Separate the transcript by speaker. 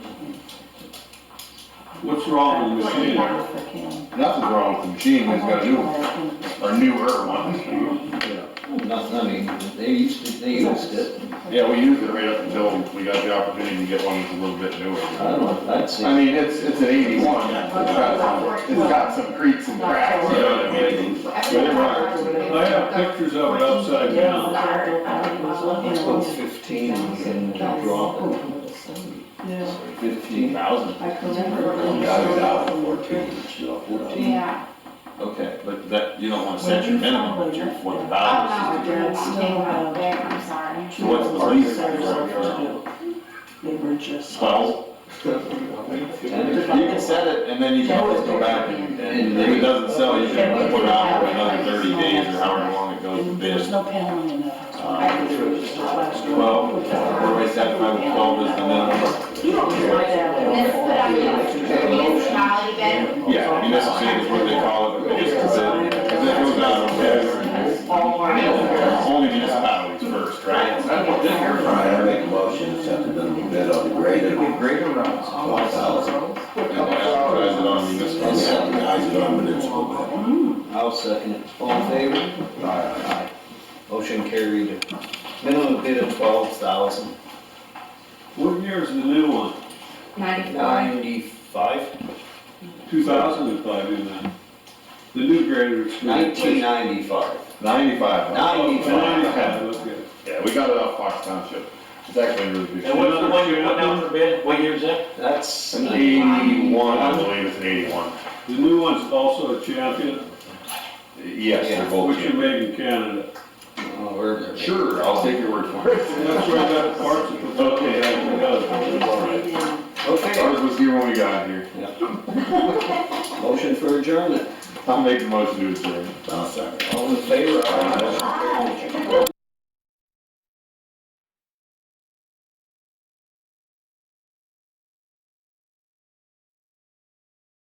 Speaker 1: What's wrong with the machine?
Speaker 2: Nothing's wrong with the machine, it's got a new, or newer one.
Speaker 3: Nothing, I mean, they used to, they used it.
Speaker 2: Yeah, we used it right up until we got the opportunity to get one that's a little bit
Speaker 3: I
Speaker 2: newer.
Speaker 3: don't know, I'd say,
Speaker 2: I mean, it's, it's an eighty-one, it's got some, it's got some creaks and cracks, you know what I mean?
Speaker 1: I have pictures of it upside down.
Speaker 3: let's go fifteen and drop it. Fifteen,
Speaker 2: thousand.
Speaker 3: fourteen,
Speaker 4: Yeah.
Speaker 3: okay.
Speaker 5: But that, you don't wanna set your minimum, but your, what the
Speaker 4: I'm
Speaker 5: value
Speaker 4: not doing anything out there, I'm sorry.
Speaker 5: is. So what's the lease?
Speaker 6: They were just.
Speaker 5: Twelve? You can set it and then you can always go back and, and if it doesn't sell, you can put it out for another thirty days or however long it goes to
Speaker 6: And There was
Speaker 5: bid.
Speaker 6: no paneling in that house.
Speaker 5: Uh,
Speaker 6: I think there was just a glass door.
Speaker 5: Twelve, where we set five, twelve is the minimum.
Speaker 4: And this put on the municipality bid,
Speaker 5: Yeah, municipality is what they call it, but it's to bid. Cause it goes out on bid. Only municipalities first, right?
Speaker 7: I make a motion to accept the minimum bid on the grader.
Speaker 3: Greater rounds.
Speaker 7: Twelve thousand.
Speaker 6: Mm.
Speaker 5: And advertise it on municipal.
Speaker 7: And advertise it on municipal bid.
Speaker 6: Mm.
Speaker 3: I'll second it. All in favor? Aye. Motion carried. Minimum bid of twelve thousand
Speaker 1: What year is the new one?
Speaker 4: ninety-four.
Speaker 3: ninety-five,
Speaker 1: Two thousand and five, isn't it? The new grader is.
Speaker 3: nineteen ninety-five.
Speaker 2: Ninety-five.
Speaker 1: Ninety-five, okay.
Speaker 2: Yeah, we got it off Fox Township, it's actually really good.
Speaker 1: And what's the one you put down
Speaker 5: for bid? What year is that?
Speaker 3: That's,
Speaker 2: An eighty-one, I believe it's an eighty-one.
Speaker 1: The new one's also a champion,
Speaker 2: Yes, they're both.
Speaker 1: which you made in Canada.
Speaker 3: oh, we're there.
Speaker 2: Sure, I'll take your word for it.
Speaker 1: That's where that parts of the.
Speaker 2: Okay.
Speaker 3: Okay,
Speaker 2: Ours was here when we got here.
Speaker 3: motion for adjournment.
Speaker 2: I'll make the motion to adjourn.
Speaker 7: I'll second.
Speaker 3: All in favor? Aye.